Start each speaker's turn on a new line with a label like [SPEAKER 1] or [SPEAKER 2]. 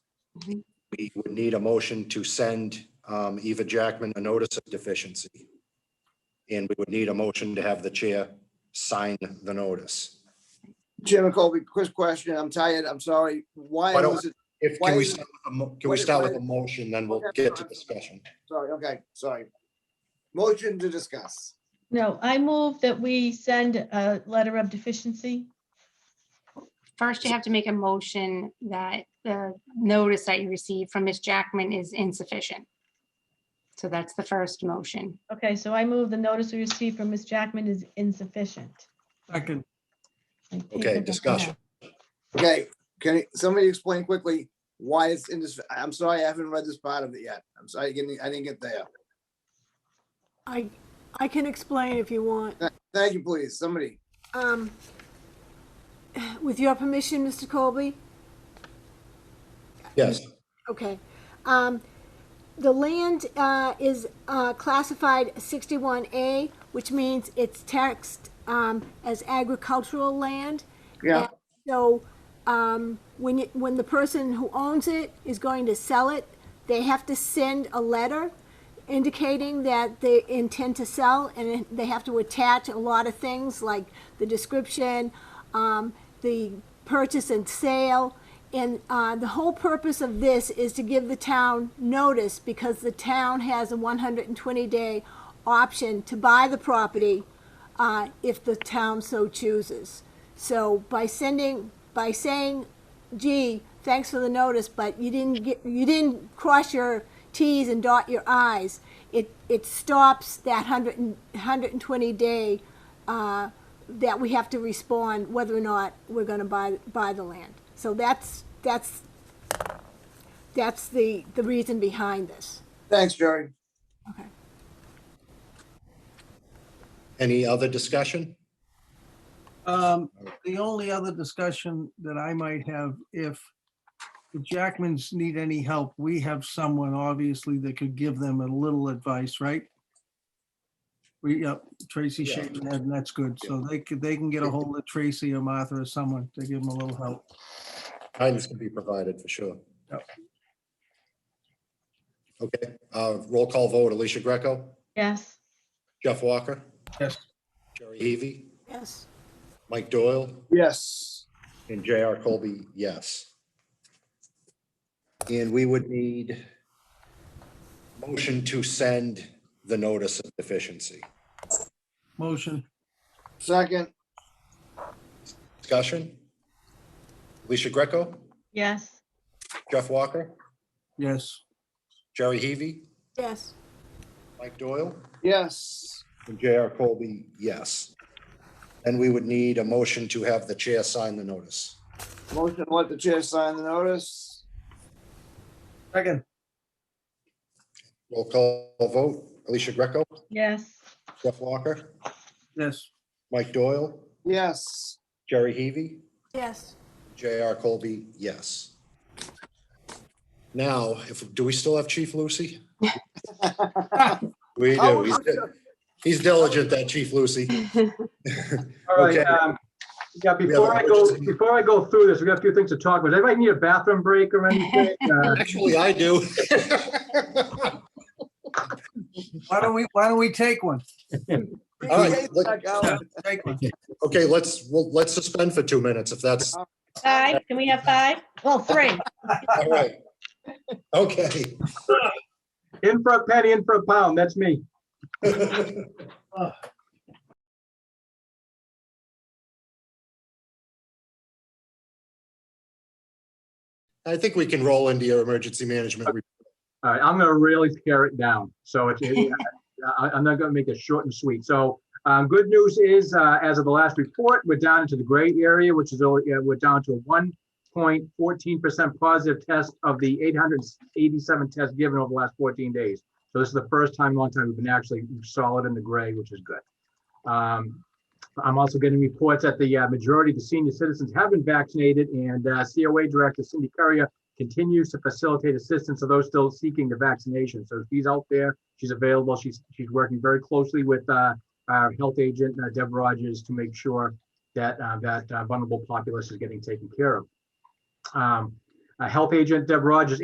[SPEAKER 1] Mhm.
[SPEAKER 2] we would need a motion to send um, Eva Jackman a notice of deficiency. And we would need a motion to have the chair sign the notice.
[SPEAKER 3] Jim and Colby, quick question. I'm tired. I'm sorry. Why
[SPEAKER 2] Why don't-
[SPEAKER 3] was it?
[SPEAKER 2] If,
[SPEAKER 3] Why
[SPEAKER 2] can we,
[SPEAKER 3] is-
[SPEAKER 2] start with a mo- can
[SPEAKER 3] why-
[SPEAKER 2] we start with
[SPEAKER 3] why-
[SPEAKER 2] a motion, then we'll
[SPEAKER 3] Okay,
[SPEAKER 2] get to
[SPEAKER 3] sorry.
[SPEAKER 2] discussion.
[SPEAKER 3] Sorry, okay, sorry. Motion to discuss.
[SPEAKER 4] No, I move that we send a letter of deficiency.
[SPEAKER 1] First, you have to make a motion that the notice that you received from Ms. Jackman is insufficient. So that's the first motion.
[SPEAKER 4] Okay, so I move the notice we received from Ms. Jackman is insufficient.
[SPEAKER 5] Second,
[SPEAKER 4] Like, people
[SPEAKER 2] Okay,
[SPEAKER 4] don't know.
[SPEAKER 2] discussion.
[SPEAKER 3] Okay, can you- somebody explain quickly why it's in this? I'm sorry, I haven't read this part of it yet. I'm sorry, I didn't, I didn't get there.
[SPEAKER 6] I, I can explain if you want.
[SPEAKER 3] Thank you, please, somebody.
[SPEAKER 6] Um, with your permission, Mr. Colby?
[SPEAKER 2] Yes,
[SPEAKER 6] Okay. Um, the land, uh, is, uh, classified sixty-one A, which means it's taxed, um, as agricultural land.
[SPEAKER 3] Yeah,
[SPEAKER 6] So, um, when you, when the person who owns it is going to sell it, they have to send a letter indicating that they intend to sell, and then they have to attach a lot of things like the description, um, the purchase and sale. And, uh, the whole purpose of this is to give the town notice because the town has a one hundred and twenty day option to buy the property, uh, if the town so chooses. So by sending, by saying, gee, thanks for the notice, but you didn't get, you didn't cross your Ts and dot your Is, it, it stops that hundred and, hundred and twenty day, uh, that we have to respond whether or not we're gonna buy, buy the land. So that's, that's, that's the, the reason behind this.
[SPEAKER 3] thanks, Jerry.
[SPEAKER 6] Okay.
[SPEAKER 2] any other discussion?
[SPEAKER 5] um, the only other discussion that I might have, if the Jackmans need any help, we have someone obviously that could give them a little advice, right? We, yep, Tracy
[SPEAKER 2] Yeah.
[SPEAKER 5] shaking her head, and that's good. So they could, they can get a hold of Tracy or Martha or someone to give them a little help.
[SPEAKER 2] Guidance can be provided for sure.
[SPEAKER 5] Yep.
[SPEAKER 2] Okay, uh, roll call vote, Alicia Greco,
[SPEAKER 4] Yes,
[SPEAKER 2] Jeff Walker,
[SPEAKER 5] Yes,
[SPEAKER 2] Jerry Heavy,
[SPEAKER 6] Yes.
[SPEAKER 2] Mike Doyle,
[SPEAKER 3] Yes,
[SPEAKER 2] And J.R. Colby, yes. And we would need motion to send the notice of deficiency.
[SPEAKER 5] motion.
[SPEAKER 3] second,
[SPEAKER 2] Discussion? Alicia Greco,
[SPEAKER 4] yes,
[SPEAKER 2] Jeff Walker,
[SPEAKER 5] Yes,
[SPEAKER 2] Jerry Heavy,
[SPEAKER 6] Yes.
[SPEAKER 2] Mike Doyle,
[SPEAKER 3] yes,
[SPEAKER 2] and J.R. Colby, yes. And we would need a motion to have the chair sign the notice.
[SPEAKER 3] motion to let the chair sign the notice.
[SPEAKER 5] second,
[SPEAKER 2] Roll call vote, Alicia Greco,
[SPEAKER 4] yes,
[SPEAKER 2] Jeff Walker,
[SPEAKER 5] yes,
[SPEAKER 2] Mike Doyle,
[SPEAKER 3] Yes,
[SPEAKER 2] Jerry Heavy,
[SPEAKER 6] Yes.
[SPEAKER 2] J.R. Colby, yes. Now, if, do we still have Chief Lucy? We do.
[SPEAKER 3] Oh,
[SPEAKER 2] He's
[SPEAKER 3] I'm
[SPEAKER 2] di-
[SPEAKER 3] sure.
[SPEAKER 2] He's diligent, that Chief Lucy.
[SPEAKER 7] All right,
[SPEAKER 2] Okay.
[SPEAKER 7] um, yeah,
[SPEAKER 2] have
[SPEAKER 7] before
[SPEAKER 2] an
[SPEAKER 7] I go,
[SPEAKER 2] emergency.
[SPEAKER 7] before I go through this, we got a few things to talk about. Does Everybody need a bathroom break or anything? Uh,
[SPEAKER 2] Actually, I do.
[SPEAKER 5] why don't we, why don't we take one?
[SPEAKER 2] All right, let-
[SPEAKER 3] Back out.
[SPEAKER 5] Take one.
[SPEAKER 2] okay, let's, well, let's suspend for two minutes if that's,
[SPEAKER 4] five, can we have five? Well, three,
[SPEAKER 2] all right. Okay.
[SPEAKER 7] In for a penny, in for a pound, that's me.
[SPEAKER 2] I think we can roll into your emergency management. report.
[SPEAKER 7] All right, I'm gonna really tear it down. So it's, I, I'm not gonna make it short and sweet. So, um, good news is, uh, as of the last report, we're down into the gray area, which is, only- uh, we're down to one point fourteen percent positive test of the eight hundred eighty-seven tests given over the last fourteen days. So this is the first time, in a long time, we've been actually solid in the gray, which is good. Um, I'm also getting reports that the uh, majority of the senior citizens have been vaccinated and, uh, COA Director Cindy Currier continues to facilitate assistance to those still seeking the vaccination. So she's out there, she's available, she's, she's working very closely with uh, our health agent, uh, Deb Rogers, to make sure that uh, that uh, vulnerable populace is getting taken care of. Um, uh, Health agent Deb Rogers